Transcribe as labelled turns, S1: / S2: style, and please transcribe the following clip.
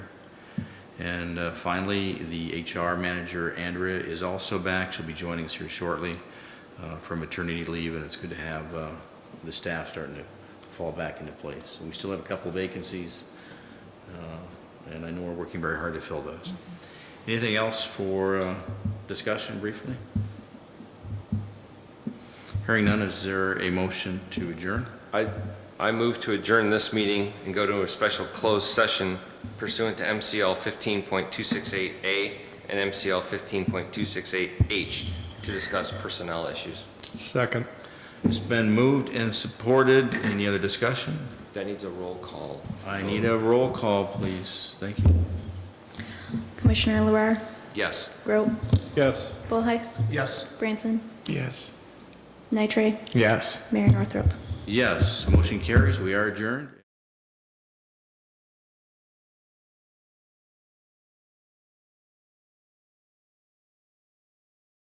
S1: And uh, finally, the HR manager, Andrea, is also back. She'll be joining us here shortly uh, for maternity leave, and it's good to have uh, the staff starting to fall back into place. We still have a couple vacancies, uh, and I know we're working very hard to fill those. Anything else for uh, discussion briefly? Hearing none, is there a motion to adjourn?
S2: I, I move to adjourn this meeting and go to a special closed session pursuant to MCL 15.268A and MCL 15.268H to discuss personnel issues.
S3: Second.
S1: It's been moved and supported. Any other discussion?
S2: That needs a roll call.
S1: I need a roll call, please. Thank you.
S4: Commissioner LaRar,
S2: Yes.
S4: Grope,
S3: Yes.
S4: Bullheys,
S3: Yes.
S4: Branson,
S3: Yes.
S4: Nitre,
S3: Yes.
S4: Mayor Northrop.
S1: Yes, motion carries. We are adjourned.